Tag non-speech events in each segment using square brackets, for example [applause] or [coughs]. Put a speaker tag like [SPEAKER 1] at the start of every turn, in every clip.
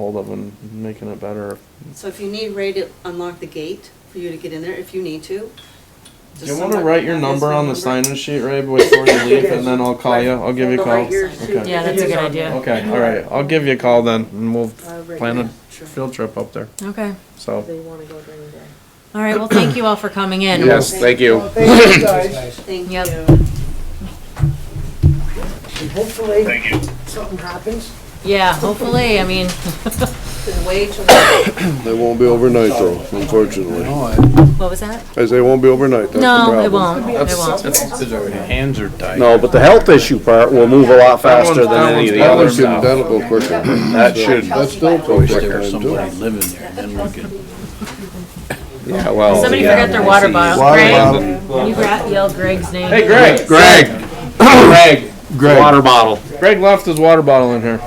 [SPEAKER 1] hold of and making it better.
[SPEAKER 2] So if you need Ray to unlock the gate for you to get in there, if you need to.
[SPEAKER 1] Do you want to write your number on the sign-in sheet, Ray, before you leave, and then I'll call you? I'll give you a
[SPEAKER 2] Right
[SPEAKER 1] call.
[SPEAKER 2] here.
[SPEAKER 1] Okay.
[SPEAKER 3] Yeah, that's a good idea.
[SPEAKER 1] Okay, all right. I'll give you a call then, and we'll plan a
[SPEAKER 2] Sure.
[SPEAKER 1] field trip up there.
[SPEAKER 3] Okay.
[SPEAKER 1] So,
[SPEAKER 4] Uh, They wanna go during the day.
[SPEAKER 3] All right, well, thank you all for coming in.
[SPEAKER 5] Yes, thank you.
[SPEAKER 4] Thank you guys,
[SPEAKER 2] Thank
[SPEAKER 3] Yep.
[SPEAKER 2] you.
[SPEAKER 4] and hopefully something happens.
[SPEAKER 3] Yeah, hopefully, I mean,
[SPEAKER 2] Been way too long.
[SPEAKER 6] They won't be overnight though, unfortunately.
[SPEAKER 3] what was that?
[SPEAKER 6] As they won't be overnight, that's the problem.
[SPEAKER 3] No, it won't, it won't.
[SPEAKER 5] Hands are tied.
[SPEAKER 7] No, but the health issue part will move a lot faster
[SPEAKER 1] That one's-
[SPEAKER 7] than any of the
[SPEAKER 1] that
[SPEAKER 6] That'll
[SPEAKER 7] other
[SPEAKER 1] one's-
[SPEAKER 6] get
[SPEAKER 7] stuff.
[SPEAKER 6] done a little quicker.
[SPEAKER 7] That should,
[SPEAKER 6] That's still
[SPEAKER 7] Always
[SPEAKER 6] probably
[SPEAKER 7] there
[SPEAKER 6] time too.
[SPEAKER 5] living there, then we could.
[SPEAKER 7] yeah, well.
[SPEAKER 3] Somebody
[SPEAKER 7] yeah.
[SPEAKER 3] forgot their water bottle.
[SPEAKER 6] Water
[SPEAKER 3] Greg,
[SPEAKER 6] bottle.
[SPEAKER 3] you gra- yelled Greg's name.
[SPEAKER 1] hey, Greg.
[SPEAKER 7] Greg, Greg, water bottle.
[SPEAKER 1] Greg left his water bottle in here.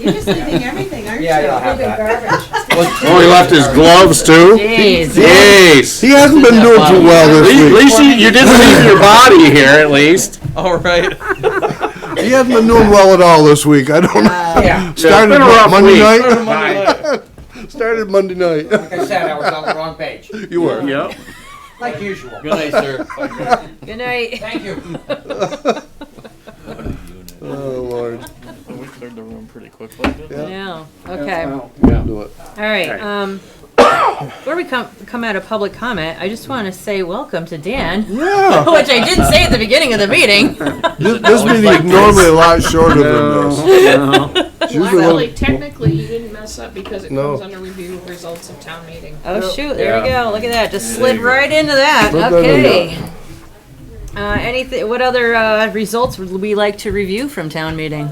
[SPEAKER 2] You're just leaving everything, aren't you?
[SPEAKER 7] Oh, he left his gloves too?
[SPEAKER 3] Jeez.
[SPEAKER 7] Jeez.
[SPEAKER 6] He hasn't been doing too well
[SPEAKER 7] At least, at
[SPEAKER 6] this
[SPEAKER 7] least you, you didn't leave your body here at least.
[SPEAKER 1] All right.
[SPEAKER 6] week. He hasn't been doing well at all this week. I don't [laughs] know.
[SPEAKER 7] Yeah.
[SPEAKER 6] Started Monday night,
[SPEAKER 7] night.
[SPEAKER 6] [laughs] started Monday night. [laughs]
[SPEAKER 8] Like I said, I was on the wrong
[SPEAKER 7] [laughs]
[SPEAKER 8] page,
[SPEAKER 6] You were.
[SPEAKER 7] Yep.
[SPEAKER 8] like usual.
[SPEAKER 5] Good night, sir.
[SPEAKER 3] Good night.
[SPEAKER 8] Thank you.
[SPEAKER 6] Oh, Lord.
[SPEAKER 1] We cleared the room pretty quickly.
[SPEAKER 3] [laughs] I know. okay, all
[SPEAKER 6] Do it.
[SPEAKER 3] right, um, where we come, come out of public comment, I just wanna say welcome to Dan, [laughs]
[SPEAKER 6] Yeah,
[SPEAKER 3] which I did say at the beginning of the meeting.
[SPEAKER 6] this, this meeting is normally a lot shorter than [laughs] this. It's usually a
[SPEAKER 4] Really,
[SPEAKER 6] little-
[SPEAKER 4] technically, you didn't mess up because it
[SPEAKER 6] No.
[SPEAKER 4] comes under review of results of town meeting.
[SPEAKER 3] Oh shoot, there we go, look at that, just slid right into that,
[SPEAKER 6] Slid right
[SPEAKER 3] okay. Uh, anything, what other, uh, results would we like to review from town meeting?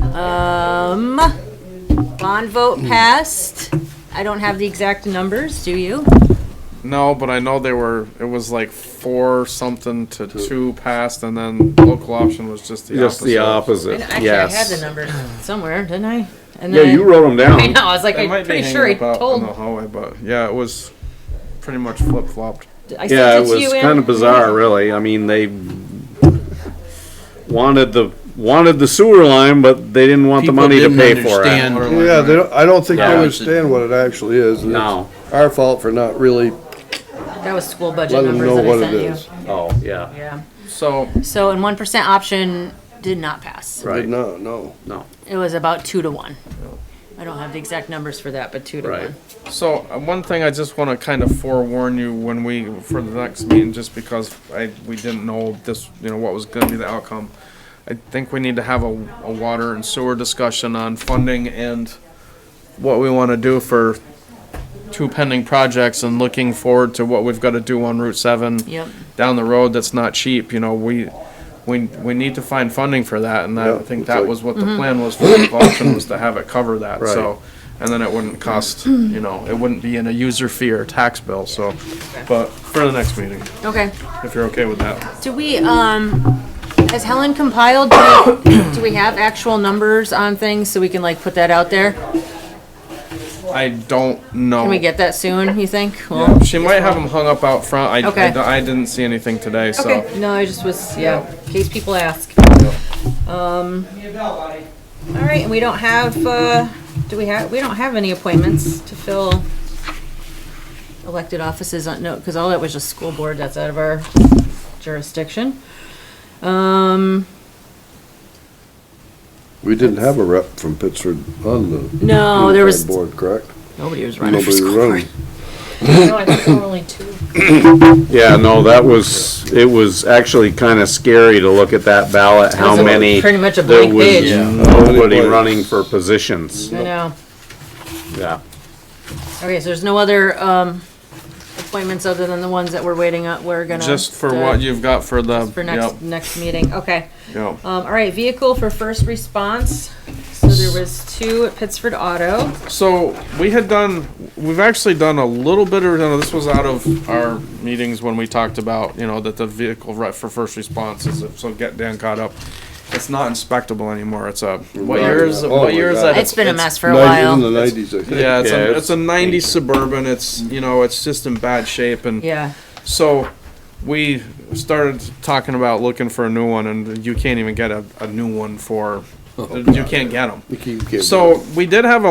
[SPEAKER 3] Um, bond vote passed, I don't have the exact numbers, do you?
[SPEAKER 1] No, but I know they were. It was like four something to two passed, and then local option was just the
[SPEAKER 7] Just the
[SPEAKER 1] opposite.
[SPEAKER 7] opposite,
[SPEAKER 3] Actually, I had the
[SPEAKER 7] yes.
[SPEAKER 3] numbers somewhere, didn't I? And
[SPEAKER 7] Yeah, you wrote them
[SPEAKER 3] [laughs] I
[SPEAKER 7] down.
[SPEAKER 3] know, I was like,
[SPEAKER 1] They might
[SPEAKER 3] I'm
[SPEAKER 1] be
[SPEAKER 3] pretty
[SPEAKER 1] hanging
[SPEAKER 3] sure I
[SPEAKER 1] about
[SPEAKER 3] told,
[SPEAKER 1] on the hallway, but yeah, it was pretty much flip flopped.
[SPEAKER 3] I sent
[SPEAKER 7] Yeah, it
[SPEAKER 3] it to
[SPEAKER 7] was
[SPEAKER 3] you in.
[SPEAKER 7] kind of bizarre, really. I mean, they wanted the, wanted the sewer line, but they didn't want the money to pay for it.
[SPEAKER 6] Yeah, they don't, I don't think they
[SPEAKER 7] Yeah.
[SPEAKER 6] understand what it actually is. and it's
[SPEAKER 7] No.
[SPEAKER 6] Our fault for not really
[SPEAKER 3] That was school budget
[SPEAKER 6] letting them
[SPEAKER 3] numbers
[SPEAKER 6] know
[SPEAKER 3] that
[SPEAKER 6] what
[SPEAKER 3] I
[SPEAKER 6] it
[SPEAKER 3] sent you.
[SPEAKER 6] is.
[SPEAKER 7] Oh, yeah.
[SPEAKER 3] Yeah,
[SPEAKER 1] So
[SPEAKER 3] so, and one percent option did not pass.
[SPEAKER 6] Did
[SPEAKER 7] Right,
[SPEAKER 6] not, no.
[SPEAKER 7] no,
[SPEAKER 3] It was about two to one. I don't have the exact numbers for that, but two to
[SPEAKER 7] right.
[SPEAKER 3] one.
[SPEAKER 1] So uh, one thing I just want to kind of forewarn you when we for the next meeting, just because I we didn't know this, you know, what was going to be the outcome. I think we need to have a, a water and sewer discussion on funding and what we want to do for two pending projects and looking forward to what we've got to do on Route Seven
[SPEAKER 3] Yep,
[SPEAKER 1] down the road. That's not cheap. You know, we we we need to find funding for that, and I
[SPEAKER 6] Yeah,
[SPEAKER 1] think
[SPEAKER 6] it's
[SPEAKER 1] that
[SPEAKER 6] like-
[SPEAKER 1] was what the
[SPEAKER 3] Mm-hmm.
[SPEAKER 1] plan was for the auction was to have it cover that.
[SPEAKER 6] Right.
[SPEAKER 1] So, and then it wouldn't cost,
[SPEAKER 3] Mm.
[SPEAKER 1] you know, it wouldn't be in a user fee or tax bill. So, but for the next meeting,
[SPEAKER 3] okay.
[SPEAKER 1] if you're okay with that,
[SPEAKER 3] Do we, um, has Helen compiled, do we- [coughs] do we have actual numbers on things so we can like put that out there?
[SPEAKER 1] I don't know.
[SPEAKER 3] Can we get that soon, you think? Well,
[SPEAKER 1] Yeah, She might have them hung up out front. I, I
[SPEAKER 3] Okay.
[SPEAKER 1] d- I didn't see anything today, so.
[SPEAKER 3] Okay, no, I just was, yeah, in case people ask. Um, all right, and we don't have, uh, do we have, we don't have any appointments to fill elected offices on, no, because all that was just school board, that's out of our jurisdiction. Um,
[SPEAKER 6] We didn't have a rep from Pittsford on the.
[SPEAKER 3] no, Oh, there was,
[SPEAKER 6] Board, correct?
[SPEAKER 3] nobody was running for
[SPEAKER 6] Nobody
[SPEAKER 3] school board.
[SPEAKER 6] running.
[SPEAKER 4] No, I think there were only two.
[SPEAKER 7] Yeah, no, that was, it was actually kind of scary to look at that ballot,
[SPEAKER 3] It
[SPEAKER 7] how
[SPEAKER 3] was a-
[SPEAKER 7] many,
[SPEAKER 3] Pretty much a
[SPEAKER 7] there
[SPEAKER 3] blank
[SPEAKER 7] was
[SPEAKER 3] page,
[SPEAKER 7] nobody running for positions.
[SPEAKER 3] I know.
[SPEAKER 7] Yeah,
[SPEAKER 3] Okay, so there's no other, um, appointments other than the ones that we're waiting on, we're gonna.
[SPEAKER 1] Just for
[SPEAKER 3] uh,
[SPEAKER 1] what you've got for the.
[SPEAKER 3] For next, next meeting, okay.
[SPEAKER 1] Yep, yep.
[SPEAKER 3] Um, all right, vehicle for first response. So there was two at Pittsford Auto.
[SPEAKER 1] So we had done, we've actually done a little bit of, no, this was out of our meetings when we talked about, you know, that the vehicle right for first response is, so get Dan caught up. It's not inspectable anymore. It's a, what year is, it-
[SPEAKER 6] Oh my
[SPEAKER 1] what year is
[SPEAKER 6] God.
[SPEAKER 1] that?
[SPEAKER 3] It's been a mess for a
[SPEAKER 6] Nineties in the
[SPEAKER 3] while.
[SPEAKER 6] nineties, I think.
[SPEAKER 1] Yeah, it's
[SPEAKER 7] Yeah,
[SPEAKER 1] a,
[SPEAKER 7] it's
[SPEAKER 1] it's a ninety Suburban. It's, you know, it's just in bad shape and.
[SPEAKER 3] Yeah,
[SPEAKER 1] So we started talking about looking for a new one, and you can't even get a, a new one for You can't get them.
[SPEAKER 6] Oh, You keep getting-
[SPEAKER 1] So we did have a